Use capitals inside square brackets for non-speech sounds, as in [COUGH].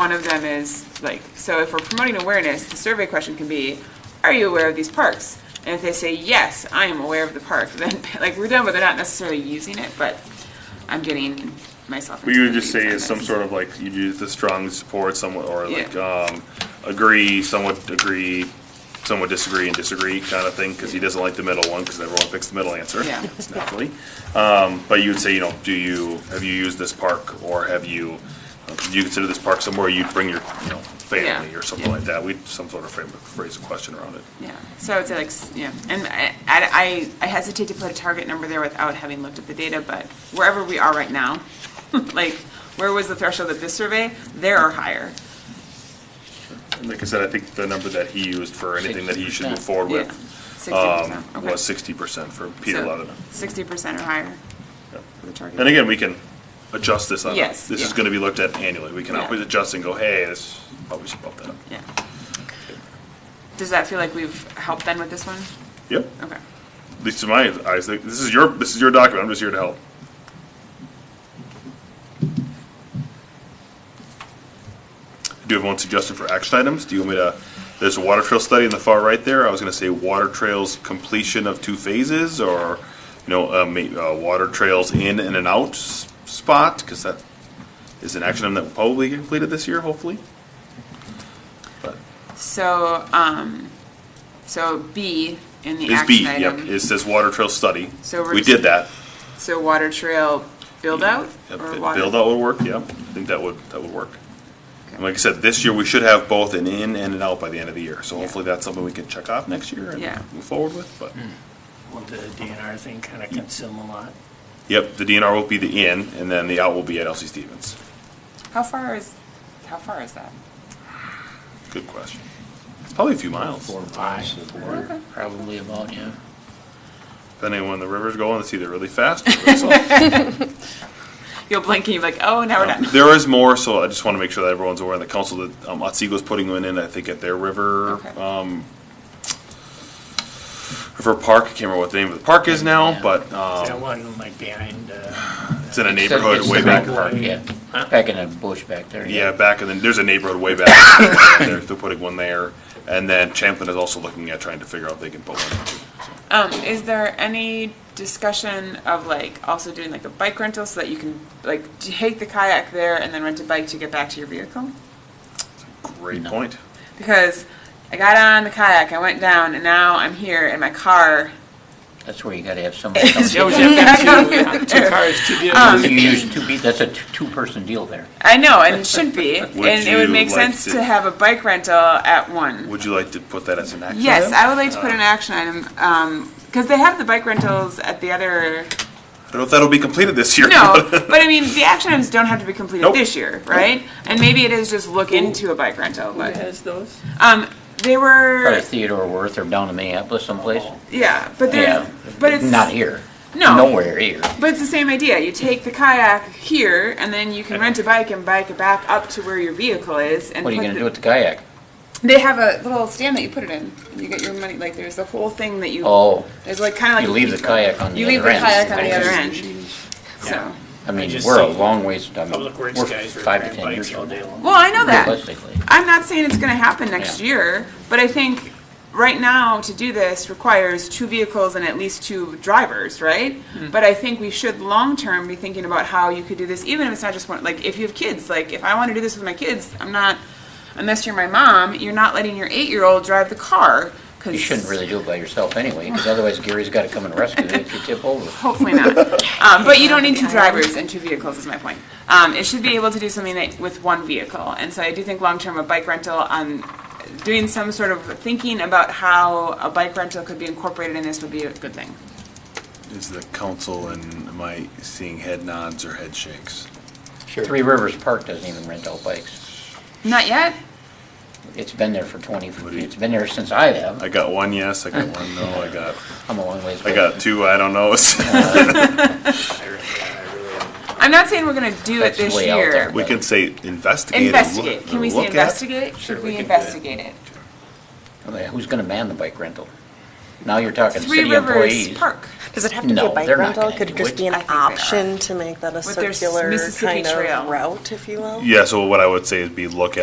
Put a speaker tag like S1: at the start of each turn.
S1: One of them is, like, so if we're promoting awareness, the survey question can be, are you aware of these parks? And if they say, yes, I am aware of the park, [LAUGHS] then, like, we're done, but they're not necessarily using it, but I'm getting myself.
S2: What you would just
S1: into
S2: say
S1: weeds on
S2: is some
S1: this.
S2: sort of like, you do the strong support somewhat, or like,
S1: Yeah.
S2: um, agree, somewhat agree, somewhat disagree and disagree kind of thing, because he doesn't like the middle one, because everyone picks the middle answer.
S1: Yeah.
S2: [LAUGHS] Naturally. Um, but you would say, you know, do you, have you used this park, or have you, uh, do you consider this park somewhere you'd bring your, you know, family
S1: Yeah.
S2: or something like that? We'd some sort of frame, phrase a question around it.
S1: Yeah, so it's like, s- yeah, and I- I, I hesitate to put a target number there without having looked at the data, but wherever we are right now, [LAUGHS] like, where was the threshold of this survey? There or higher.
S2: And like I said, I think the number that he used for anything that he should move forward
S1: Yeah,
S2: with,
S1: sixty
S2: um,
S1: percent,
S2: was
S1: okay.
S2: sixty percent for Peter Leatherman.
S1: Sixty percent or higher
S2: Yeah.
S1: for the target.
S2: And again, we can adjust this on,
S1: Yes,
S2: this is
S1: yeah.
S2: gonna be looked at annually, we can
S1: Yeah.
S2: always adjust and go, hey, this, probably should bump that up.
S1: Yeah. Does that feel like we've helped then with this one?
S2: Yep,
S1: Okay.
S2: at least in my eyes, like, this is your, this is your document, I'm just here to help. Do you have one suggestion for action items? Do you want me to, there's a water trail study in the far right there, I was gonna say water trails completion of two phases, or, you know, uh, ma- uh, water trails in and an out s- spot, cause that is an action item that will probably get completed this year, hopefully. But
S1: So, um, so B in the
S2: Is B,
S1: action
S2: yep,
S1: item.
S2: it says water trail study,
S1: So we're
S2: we
S1: just-
S2: did that.
S1: So water trail build out
S2: Yep,
S1: or
S2: it-
S1: water?
S2: Build out would work, yep. I think that would, that would work. And
S1: Okay.
S2: like I said, this year, we should have both an in and an out by the end of the year. So hopefully that's something we can check off next year and
S1: Yeah.
S2: move forward with, but.
S3: Hmm.
S4: Well, the DNR thing kind of consume a lot.
S2: Yep, the DNR will be the in, and then the out will be at LC Stevens.
S1: How far is, how far is that?
S2: Good question. It's probably a few miles,
S4: Four, five, four, probably about, yeah.
S2: depending on when the river's going. It's either
S1: [LAUGHS]
S2: really fast or really slow.
S1: You'll blink and you're like, oh, now we're done. [LAUGHS]
S2: There is more, so I just want to make sure that everyone's aware, in the council, that um, Otsego putting one in, I think, at their river,
S1: Okay.
S2: um, river park. I can't remember what the name of the park is now,
S3: Yeah.
S2: but,
S4: That
S2: um,
S4: one like behind, uh,
S2: it's in a
S3: It's the-
S2: neighborhood
S3: it's
S2: way
S3: the
S2: back.
S3: back part, Yeah, back in the bush back there.
S2: Yeah, back, and then there's a neighborhood way back, they're, they're putting one there, and then Champlin is also looking at trying to figure out if they can put one. too, so.
S1: Um, is there any discussion of like also doing like a bike rental so that you can like take the kayak there and then rent a bike to get back to your vehicle?
S2: Great point.
S1: Because I got on the kayak, I went down, and now I'm here in my car.
S3: That's where you gotta
S1: [LAUGHS]
S3: have somebody. come
S1: Um,
S5: Yeah, we
S3: in.
S5: have
S1: Yeah,
S5: to
S1: I'm
S5: have two, two
S1: there.
S5: cars to do.
S3: You use two, pe- that's a t- two-person deal there.
S1: I know, and it should be, and it would
S2: you
S1: make
S2: like
S1: sense
S2: to-
S1: to have a bike rental at one.
S2: Would you like to put that as an action?
S1: Yes,
S2: item?
S1: I would like to put an action item, because they have the bike rentals at the other,
S2: I don't know if that'll be completed this year. [LAUGHS]
S1: no, but I mean, the action items don't have to be completed
S2: Nope.
S1: this year, right? And maybe it is just look into a bike rental,
S5: Who
S1: but,
S5: has those?
S1: um, they
S3: Probably
S1: were,
S3: Theodore Worth or down in Minneapolis someplace.
S1: yeah, but
S3: Yeah,
S1: they're, but it's.
S3: Not here.
S1: No.
S3: Nowhere here.
S1: But it's the same idea. You take the kayak here, and then you can rent a bike and bike it back up to where your vehicle is. And
S3: What are you
S1: put
S3: gonna
S1: the-
S3: do with the kayak?
S1: They have a little stand that you put it in. and You get your money. Like there's the whole thing that you.
S3: Oh,
S1: There's like kind of like
S3: you leave the kayak on the
S1: You leave
S3: other
S1: the
S3: end.
S1: kayak on the other end.
S4: Yeah.
S1: So.
S3: I mean,
S4: just
S3: we're a
S4: see
S3: long ways, I mean,
S4: public
S3: we're
S4: works guys are
S3: five to
S4: riding
S3: ten years
S4: bikes all
S3: old.
S4: day long.
S1: Well, I know that.
S3: Realistically,
S1: I'm not saying it's going to happen next
S3: Yeah.
S1: year, but I think right now to do this requires two vehicles and at least two drivers, right?
S3: Hmm.
S1: But I think we should long term be thinking about how you could do this, even if it's not just one. Like if you have kids, like if I want to do this with my kids, I'm not. Unless you're my mom, you're not letting your eight year old drive the car. Cause
S3: you shouldn't really do it by yourself anyway, because otherwise Gary's gotta come and rescue you if you tip over.
S1: Hopefully not. Um, but you don't need two drivers and two vehicles is my point. Um, it should be able to do something that, with one vehicle. And so I do think long-term a bike rental on doing some sort of thinking about how a bike rental could be incorporated in this would be a good thing.
S2: Is the council and am I seeing head nods or head shakes?
S3: Three Rivers Park doesn't even rent out bikes.
S1: Not yet?
S3: It's been there for twenty,
S2: do you-
S3: it's been there since I have.
S2: I got one yes, I got one no, I got,
S3: I'm a long ways.
S2: I got two I don't knows.
S4: I really- yeah, I really-
S1: I'm not saying we're gonna do it
S3: That's
S1: this
S3: way out
S1: year.
S3: there.
S2: [LAUGHS] We can say investigate. or look-
S1: Investigate. Can we
S2: look
S1: say
S2: at.
S1: investigate?
S4: Sure,
S1: Should
S4: we
S1: we
S4: can do that.
S1: investigate it?
S3: I mean, Who's gonna man the bike rental? Now you're talking
S1: Three
S3: city
S1: Rivers
S3: employees.
S1: Park
S5: Does it have to be
S3: No,
S5: a bike
S3: they're not
S5: rental?
S3: gonna
S5: Could it
S3: do
S5: just
S3: it.
S5: be an
S1: I think they are.
S5: option to make that a
S1: With their s-
S5: circular
S1: Mississippi
S5: kind
S1: Trail.
S5: of route, if you will?
S2: Yeah, so what I would say is be look at.